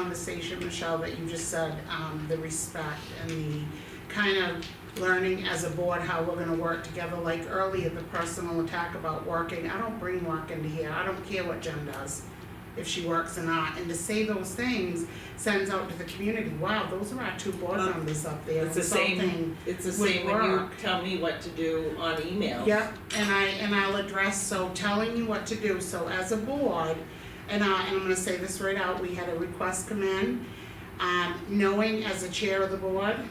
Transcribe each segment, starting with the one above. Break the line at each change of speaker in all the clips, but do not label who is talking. conversation, Michelle, that you just said, um, the respect and the kind of learning as a board how we're gonna work together, like earlier, the personal attack about working, I don't bring work into here, I don't care what Jen does, if she works or not, and to say those things sends out to the community, wow, those are our two board
Um,
members up there,
It's the same,
insulting.
it's the
would
same when you
work.
tell me what to do on emails.
Yep, and I, and I'll address, so telling you what to do, so as a board, and I, and I'm gonna say this right out, we had a request come in. Um, knowing as a chair of the board, um,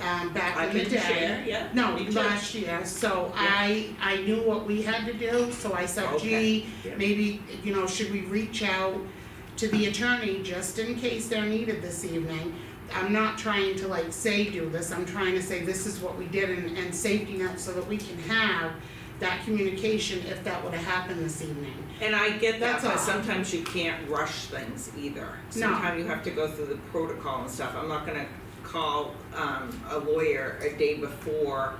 I
back in the
can
day.
share, yeah.
No,
me too.
last year, so I, I knew what we had to do, so I said,
Okay,
gee,
yeah.
maybe, you know, should we reach out to the attorney just in case they're needed this evening? I'm not trying to like say do this, I'm trying to say this is what we did and, and safety net so that we can have that communication if that would've happened this evening.
And I get that,
That's
but
all.
sometimes you can't rush things either. Sometimes you have to go through the protocol and stuff. I'm not gonna call um a lawyer a day before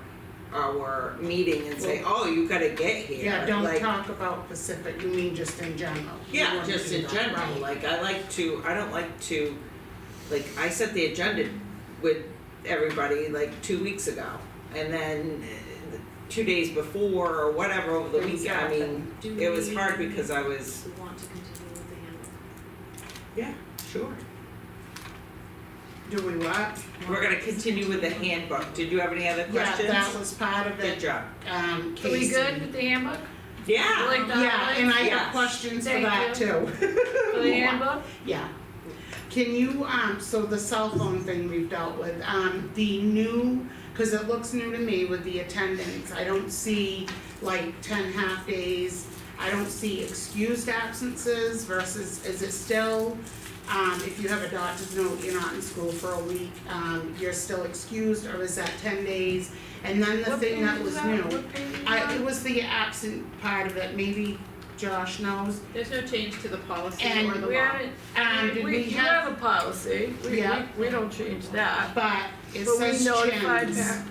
our meeting and say, oh, you gotta get here.
Yeah, don't
Like,
talk about Pacific, you mean just in general. You
Yeah,
wouldn't
just
do
in
that,
general,
right.
like I like to, I don't like to, like I set the agenda with everybody like two weeks ago. And then uh, two days before or whatever over the
Things
weekend, I mean,
happen.
Do
it was
we-
hard because I was,
Do we want to continue with the handbook?
yeah, sure.
Do we what?
We're gonna continue with the handbook. Did you have any other
Yeah,
questions?
that was part of
Good
it,
job.
um,
Are
Casey.
we good with the handbook?
Yeah,
Like the
Yeah, and I
Yes.
have questions for
Thank
that
you.
too.
For the handbook?
Yeah. Can you, um, so the cell phone thing we've dealt with, um, the new, cause it looks new to me with the attendance, I don't see like ten half days. I don't see excused absences versus, is it still, um, if you have a doctor's note, you're not in school for a week, um, you're still excused, or is that ten days? And then the
What
thing
page
that
is
was new,
What page is
I, it
that?
was the absent part of it, maybe Josh knows,
There's no change to the policy
And
or the law.
We haven't,
um, did
we,
we
we
have,
have a policy, we, we,
Yeah.
we don't change that.
but it
But we
says
notified
chins
back.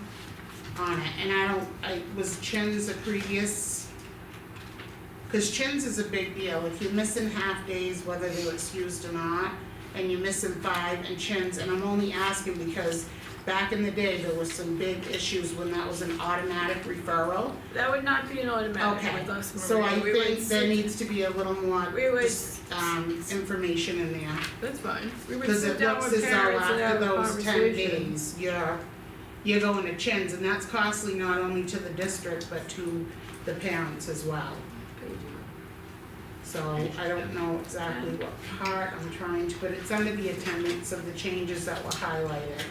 on it, and I don't, I, was chins a previous? Cause chins is a big deal, if you're missing half days, whether they're excused or not, and you're missing five and chins, and I'm only asking because back in the day, there was some big issues when that was an automatic referral.
That would not be an automatic
Okay,
with us,
So I
Maria, we would,
think there
sit-
needs to be a little more,
We would-
just, um, information in there.
that's fine, we would
Cause
sit
it
down
looks as
with
though
parents and
after
have a
those ten
conversation.
days, you're, you're going to chins, and that's costly not only to the district, but to the parents as well. So I don't know exactly what part I'm trying to, but it's under the attendance of the changes that were highlighted.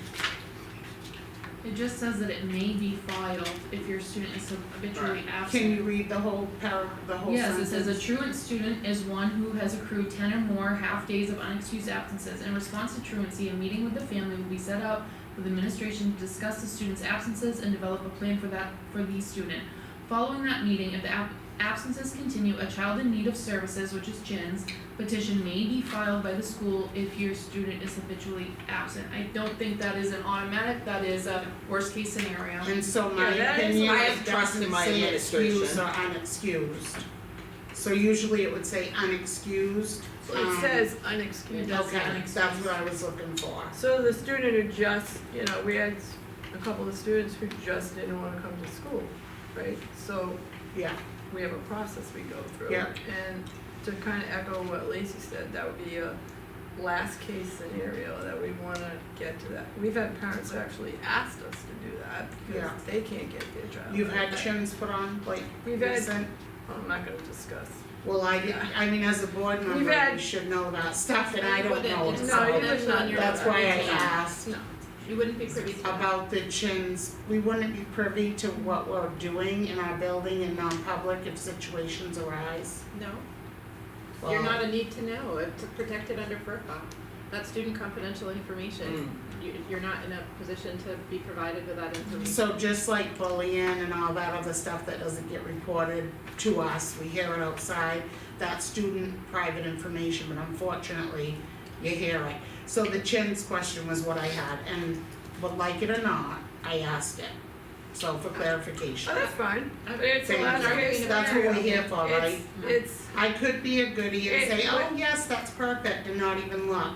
It just says that it may be filed if your student is habitually absent.
Can you read the whole par, the whole
Yes, it
sentence?
says a truant student is one who has accrued ten or more half days of unexcused absences. In response to truancy, a meeting with the family will be set up with administration to discuss the student's absences and develop a plan for that, for the student. Following that meeting, if the ab- absences continue, a child in need of services, which is JINS, petition may be filed by the school if your student is habitually absent. I don't think that is an automatic, that is a worst case scenario.
And so my
Yeah, that is-
opinion
I have
is
trust in
doesn't
my
say
administration.
excused or unexcused. So usually it would say unexcused,
Well, It
um,
says
It
unexcused,
does say
Okay,
unexcused.
that's what I was looking for.
so the student who just, you know, we had a couple of students who just didn't wanna come to school, right? So
Yeah,
we have a process we go through.
Yeah.
And to kind of echo what Lacey said, that would be a last case scenario that we want to get to that. We've had parents who actually asked us to do that because
Yeah.
they can't get their child.
you've had
back.
chins put on, like,
Oh, We've had,
recent,
I'm not going to discuss.
well, I did, I mean, as a board
We've
member, you
had-
should know about stuff and I
You
don't
wouldn't-
know,
it's
No,
so
you
that's
would
not
not
your-
that's why I
Yeah.
asked
No.
You wouldn't be privy to that.
about the chins, we wouldn't be privy to what we're doing in our building in non-public if situations arise.
No,
Well,
you're not a need to know, it's protected under FERPA. That's student confidential information.
Mm.
You, you're not in a position to be provided with that
Mm-hmm.
information.
So just like bullying and all that other stuff that doesn't get reported to us, we hear it outside, that's student private information, but unfortunately, you hear it. So the chins question was what I had, and would like it or not, I asked it, so for clarification.
Oh, that's fine.
I'm-
But it's a
Thank
last
you.
case scenario.
That's what we're here for, right?
It's, it's,
I could be a goodie and
It-
say, oh, yes, that's perfect, and not even look,